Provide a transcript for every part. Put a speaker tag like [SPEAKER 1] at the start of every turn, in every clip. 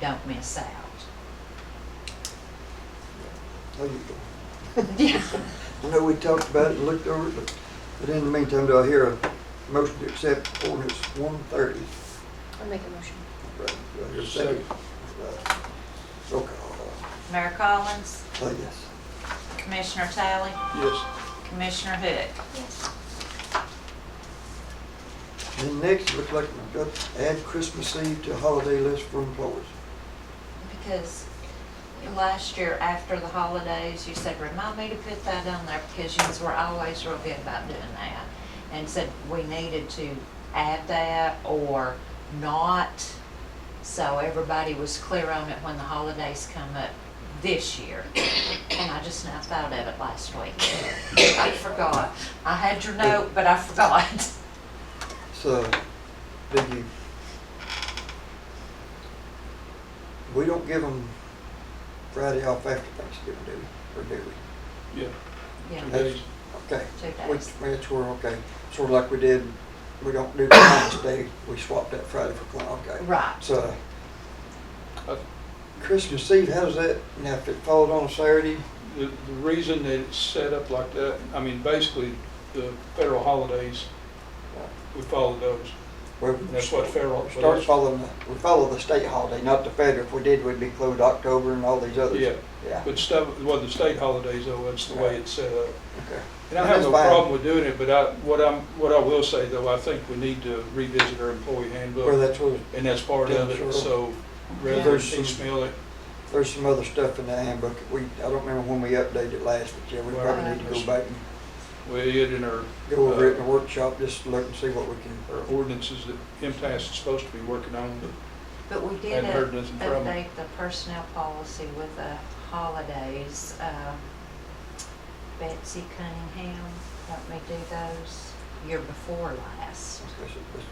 [SPEAKER 1] don't miss out.
[SPEAKER 2] Oh, you-
[SPEAKER 1] Yeah.
[SPEAKER 2] I know we talked about it and looked over it, but- but in the meantime, do I hear a motion to accept ordinance one thirty?
[SPEAKER 3] I'll make a motion.
[SPEAKER 4] Yes, sir.
[SPEAKER 2] Roll call,
[SPEAKER 1] Mayor Collins,
[SPEAKER 2] say yes.
[SPEAKER 1] Commissioner Talley,
[SPEAKER 2] Yes.
[SPEAKER 1] Commissioner Hood.
[SPEAKER 3] Yes.
[SPEAKER 2] And next, it looks like we've got to add Christmas Eve to holiday list for employees.
[SPEAKER 1] Because last year after the holidays, you said, remind me to put that on there because you were always real good about doing that. And said we needed to add that or not. So everybody was clear on it when the holidays come up this year. And I just now thought of it last week. I forgot. I had your note, but I forgot.
[SPEAKER 2] So, did you? We don't give them Friday off after Thanksgiving, do we? Or do we?
[SPEAKER 4] Yeah,
[SPEAKER 1] Yeah,
[SPEAKER 4] two days.
[SPEAKER 2] Okay.
[SPEAKER 1] two
[SPEAKER 2] We,
[SPEAKER 1] days.
[SPEAKER 2] that's where, okay, sort of like we did, we don't do Columbus Day, we swapped that Friday for Columbus, okay.
[SPEAKER 1] Right.
[SPEAKER 2] So, Christmas Eve, how's that, now if it falls on Saturday,
[SPEAKER 4] The, the reason that it's set up like that, I mean, basically, the federal holidays, we follow those.
[SPEAKER 2] well,
[SPEAKER 4] And That's what federal.
[SPEAKER 2] start following, the- we follow the state holiday, not the federal, if we did, we'd be closed October and all these others.
[SPEAKER 4] Yeah,
[SPEAKER 2] Yeah,
[SPEAKER 4] but stuff, well, the state holidays, though, that's the way it's set up.
[SPEAKER 2] okay,
[SPEAKER 4] And I
[SPEAKER 2] And
[SPEAKER 4] have
[SPEAKER 2] that's
[SPEAKER 4] no
[SPEAKER 2] fine.
[SPEAKER 4] problem with doing it, but I, what I'm, what I will say, though, I think we need to revisit our employee
[SPEAKER 2] well,
[SPEAKER 4] handbook,
[SPEAKER 2] that's what,
[SPEAKER 4] and that's part of
[SPEAKER 2] Yeah,
[SPEAKER 4] it,
[SPEAKER 2] sure.
[SPEAKER 4] so
[SPEAKER 1] Yeah.
[SPEAKER 4] rather than
[SPEAKER 2] There's some-
[SPEAKER 4] piecemeal it,
[SPEAKER 2] there's some other stuff in the handbook, that we, I don't remember when we updated it last, but yeah, we
[SPEAKER 4] Well,
[SPEAKER 2] probably need to go
[SPEAKER 4] there's-
[SPEAKER 2] back and
[SPEAKER 4] we it in our.
[SPEAKER 2] go over it in
[SPEAKER 4] uh,
[SPEAKER 2] the workshop, just look and see what we can,
[SPEAKER 4] Our ordinances that MTS is supposed to be working on, but
[SPEAKER 1] But we did
[SPEAKER 4] Hadn't
[SPEAKER 1] up-
[SPEAKER 4] heard nothing from 'em.
[SPEAKER 1] update the personnel policy with the holidays. Um, Betsy Cunningham helped me do those year before last.
[SPEAKER 2] discuss it, just-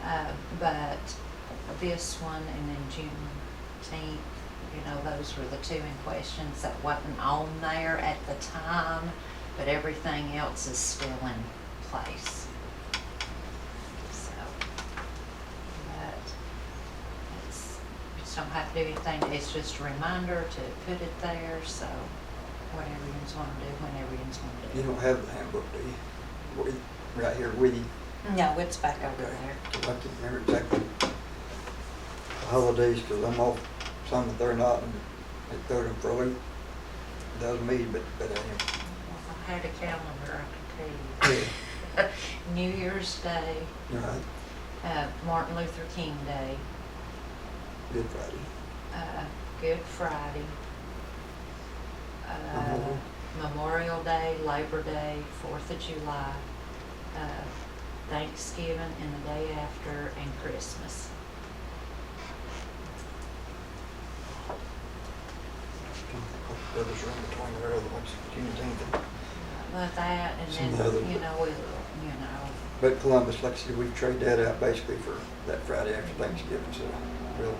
[SPEAKER 2] okay.
[SPEAKER 1] Uh, But this one and then Juneteenth, you know, those were the two in questions that wasn't on there at the time, but everything else is still in place. So, but it's, we just don't have to do anything, it's just a reminder to put it there, so whatever you just wanna do, whenever you just wanna do.
[SPEAKER 2] You
[SPEAKER 1] it.
[SPEAKER 2] don't have the handbook, do you? We- Right here with you.
[SPEAKER 1] No, it's back over there.
[SPEAKER 2] I can't remember exactly the holidays, because I'm off some that they're not, and they throw them for me. Doesn't me, but, but I
[SPEAKER 1] If I had a calendar, I could
[SPEAKER 2] am.
[SPEAKER 1] tell you. New Year's Day,
[SPEAKER 2] You're right,
[SPEAKER 1] uh, Martin Luther King Day,
[SPEAKER 2] Good Friday.
[SPEAKER 1] uh, Good Friday, uh,
[SPEAKER 2] Memorial.
[SPEAKER 1] Memorial Day, Labor Day, Fourth of July, uh, Thanksgiving and the day after, and Christmas.
[SPEAKER 2] The Others are in between there, other ones, Juneteenth. and-
[SPEAKER 1] But that, and
[SPEAKER 2] Some other-
[SPEAKER 1] then, you know, we, you know,
[SPEAKER 2] But Columbus, like I said, we trade that out basically for that Friday after Thanksgiving, so real.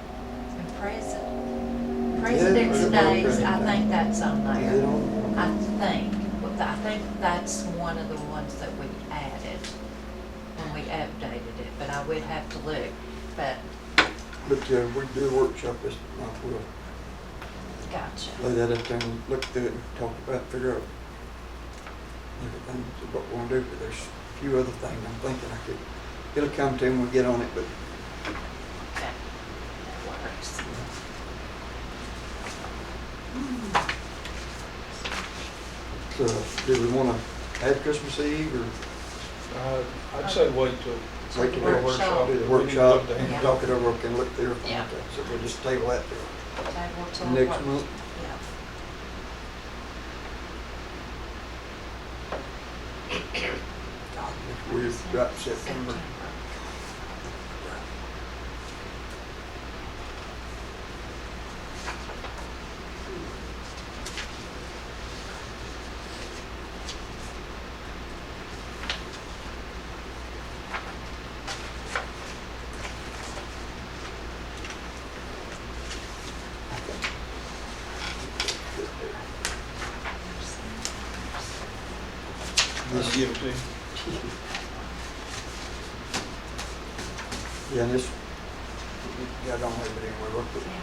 [SPEAKER 1] and President, President's
[SPEAKER 2] Memorial
[SPEAKER 1] Days, I
[SPEAKER 2] President Day.
[SPEAKER 1] think that's on there.
[SPEAKER 2] Is it on?
[SPEAKER 1] I think, well, I think that's one of the ones that we added when we updated it, but I would have to look. But,
[SPEAKER 2] But, uh, we do a workshop this month, we'll
[SPEAKER 1] gotcha.
[SPEAKER 2] lay that up there and look through it and talk about, figure out everything, that's what we wanna do, but there's a few other things I'm thinking I could, it'll come to when we get on it, but
[SPEAKER 1] Okay. That works.
[SPEAKER 2] So, do we wanna add Christmas Eve or
[SPEAKER 4] I, I'd say wait till
[SPEAKER 2] wait till
[SPEAKER 4] Or
[SPEAKER 2] we
[SPEAKER 1] Workshop.
[SPEAKER 2] do the
[SPEAKER 4] We need to
[SPEAKER 2] workshop
[SPEAKER 4] update.
[SPEAKER 2] and
[SPEAKER 1] Yeah.
[SPEAKER 2] talk it over, we can look through it?
[SPEAKER 1] Yeah.
[SPEAKER 2] So we'll just table that till
[SPEAKER 1] Table till
[SPEAKER 2] next
[SPEAKER 1] what-
[SPEAKER 2] month.
[SPEAKER 1] Yeah.
[SPEAKER 2] We're right September.
[SPEAKER 4] I'll give it to you.
[SPEAKER 2] Yeah, this, yeah, I don't have it anywhere, look, but
[SPEAKER 1] Yeah.